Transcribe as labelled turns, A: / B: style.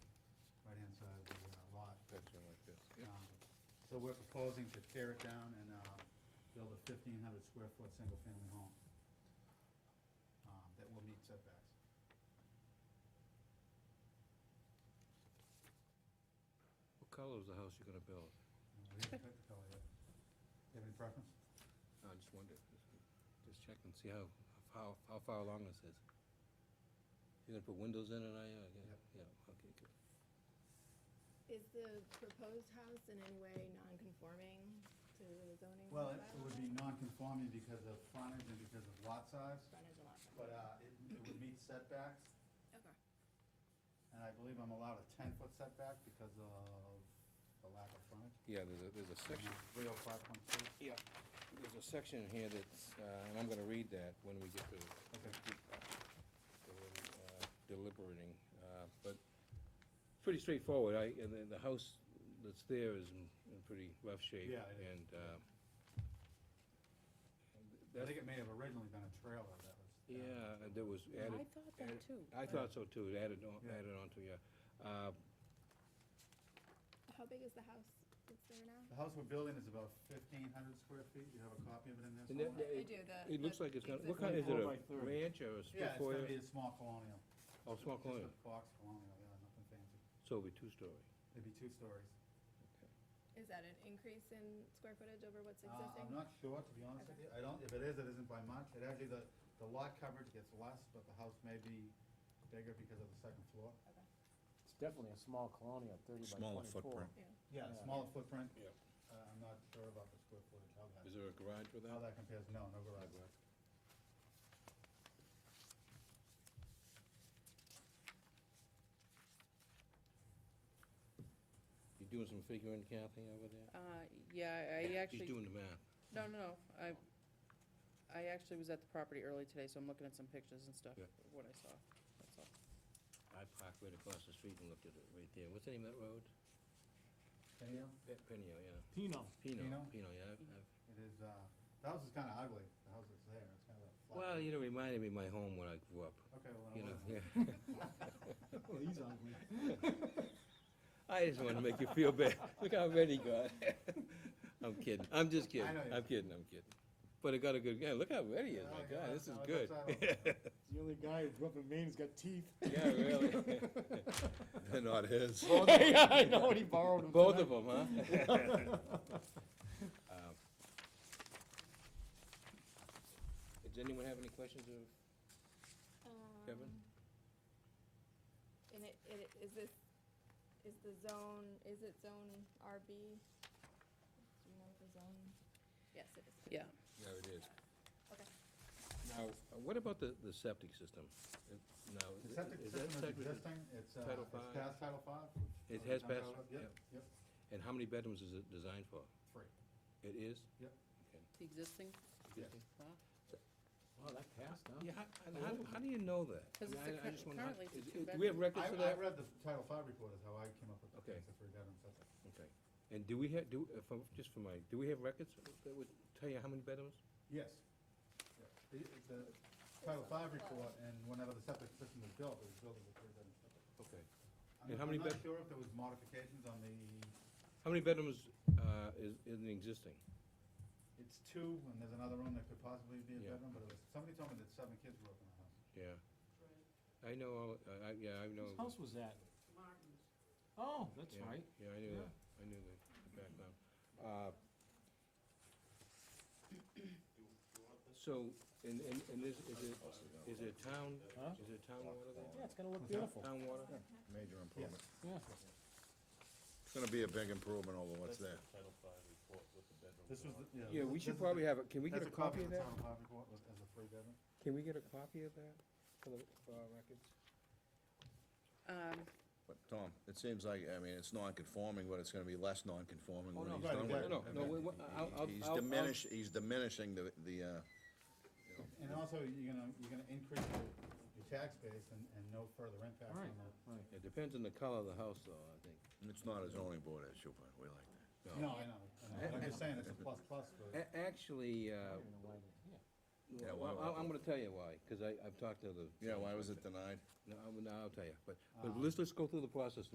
A: uh, um, So we're proposing to tear it down and uh, build a fifteen hundred square foot single-family home um, that will meet setbacks.
B: What color is the house you're gonna build?
A: And We haven't picked the color yet. You have any preference?
B: I just wondered, just check and see how, how, how far along this is. You're gonna put windows in it, are you? Yeah,
A: Yep.
B: Yeah, okay, good.
C: Is the proposed house in any way non-conforming to the zoning?
A: Well, it it would be
C: bylaw?
A: non-conforming because of frontage and because of lot size,
C: Frontage and lot size.
A: but uh, it it would meet setbacks,
C: Okay.
A: and I believe I'm allowed a ten-foot setback because of the lack of frontage.
B: Yeah, there's a, there's a section.
A: Three oh five point two.
B: Yeah. There's a section here that's, uh, and I'm gonna read that when we get to
A: Okay.
B: uh, deliberating, uh, but it's pretty straightforward. I, and then the house that's there is in in pretty rough shape.
A: Yeah, it is.
B: And,
A: I
B: uh, that's-
A: think it may have originally been a trailer that was. uh,
B: Yeah, and there was added.
D: I thought that
B: added-
D: too.
B: I thought so too, It added on,
A: Yeah.
B: added on to, yeah. Uh,
C: How big is the house that's there now?
A: The house we're building is about fifteen hundred square feet, you have a copy of it in there
B: And that-
A: somewhere?
B: that-
C: I do, the-
B: It looks
C: the
B: like it's gonna, what kind, is
C: existing-
B: it
E: Four by
B: a
E: thirty.
B: ranch or a
A: Yeah,
B: split
A: it's gonna be
B: foyer?
A: a small colonial.
B: Oh, small
A: Just a-
B: colonial,
A: Just a box colonial, yeah, nothing fancy.
B: so it'll be two-story.
A: It'd be two stories.
C: Is that an increase in square footage over what's
A: Uh,
C: existing?
A: I'm not sure, to be honest with you, I don't, if it is, it isn't by much, it actually, the, the lot coverage gets less, but the house may be bigger because of the second floor.
C: Okay,
E: It's definitely a small colonial, thirty by twenty-four.
F: Smaller footprint.
C: yeah.
A: Yeah,
E: Yeah.
A: smaller footprint.
B: Yeah.
A: Uh, I'm not sure about the square footage, how
B: Is
A: that,
B: there a garage with
A: how
B: that?
A: that compares, no, no garage.
B: You doing some figuring, Kathy, over there?
D: Uh, yeah, I
B: She's
D: actually,
B: doing the math.
D: no, no, no, I, I actually was at the property early today, so I'm looking at some pictures and stuff,
B: Yeah.
D: of what I saw, that's all.
B: I parked right across the street and looked at it right there. What's the name of that road?
A: Any of
B: Pe- Pino, yeah.
E: Pino,
B: Pino,
A: Pino?
B: Pino, yeah. I've- I've-
A: It is, uh, the house is kinda ugly, the house that's there, it's kinda flat.
B: Well, you know, it reminded me of my home when I grew up,
A: Okay, well,
B: you
A: then
B: know,
A: it
B: yeah.
A: wasn't. Well, he's ugly.
B: I just want to make you feel bad. Look how red he got. I'm kidding. I'm just kidding.
A: I know you
B: I'm
A: are.
B: kidding. I'm kidding. But it got a good guy. Look how red he
A: Yeah,
B: is. My
A: yeah,
B: God, this is
A: no,
B: good.
A: that's not all.
E: the only guy who grew up in Maine's got teeth.
B: Yeah, really.
F: They're not his.
E: Yeah, I know, and he borrowed them.
B: Both of them, huh? Um, Does anyone have any questions of Kevin?
C: Um, And it, it, is this, is the zone, is it zone RB? Do you know the zone? Yes, it is.
D: Yeah,
B: Yeah, it is.
C: Okay.
B: Now, uh, what about the, the septic system? If- Now,
A: The septic
B: is
A: system is
B: that septic system-
A: existing, it's, uh,
B: Title
A: it's
B: five?
A: past Title Five.
B: It has passed,
A: Yep, yep,
B: And how many bedrooms is it designed for?
A: free,
B: It is?
A: yep,
B: Okay.
D: the existing,
A: yes.
D: wow.
E: Wow, that passed, huh?
B: Yeah, how, and how, how do you know that?
D: 'Cause it's
B: I mean, I- I
D: a
B: just
D: cur-
B: wanna-
D: currently it's a
B: is- do
D: two
B: We have
D: bedroom.
B: records
A: I, I
B: for that?
A: read the Title Five report is how I came up with the
B: Okay.
A: things that free bedroom septic.
B: Okay, and do we have, do, if I'm- just for my, do we have records that would tell you how many bedrooms?
A: Yes. Yeah. The, the Title Five report and whenever the septic system was built, it was built as a three bedroom septic.
B: Okay.
A: I'm
B: And how
A: not-
B: many
A: I'm
B: bed-
A: not sure if there was modifications on the,
B: How many bedrooms, uh, is, in the existing?
A: it's two, and there's another room that could possibly be a
B: Yeah.
A: bedroom, but it was, somebody told me that seven kids grew up in the house.
B: Yeah. I know, all- uh, I, yeah, I know.
E: Whose house was that? Oh, that's
B: Yeah,
E: right.
B: Yeah, I knew
E: Yeah.
B: that, I knew the the background. Uh, So, and, and, and is, is it, is it town,
E: Huh?
B: is it town water there?
E: Yeah, it's gonna look beautiful,
B: Town water?
F: Major improvement.
E: yeah.
F: It's gonna be a big improvement over what's there.
G: Title V report with the bedroom.
A: This was, the- yeah.
B: Yeah, we
A: this
B: should
A: is
B: probably
A: the-
B: have, a can we get
A: that's
B: a copy of
A: the
B: that?
A: Title Five report with- as a free bedroom.
B: Can we get a copy of that for the, for our records?
D: Um,
F: But Tom, it seems like, I mean, it's non-conforming, but it's gonna be less non-conforming
B: Oh,
F: when
B: no,
F: he's
A: right,
F: done
B: No,
F: with
A: exactly.
F: it.
B: no, no, we- we- I'll, I'll.
F: He's
B: I'll- I'll-
F: diminish, he's diminishing the, the, uh,
A: And also, you're gonna, you're gonna increase your, your tax base and, and no further impact
E: Right,
A: on the.
E: right.
B: It depends on the color of the house, though, I think.
F: it's not a zoning board issue, but we like that.
A: No, I know, I know, but I'm just saying, it's a plus plus for.
B: A- Actually, uh,
E: I don't know why they- yeah.
F: Yeah,
B: well, I-
F: why-
B: I'm gonna tell you why, because I, I've talked to the.
F: Yeah, why was it denied?
B: No, I'll, no, I'll tell you, but, but let's, let's go through the process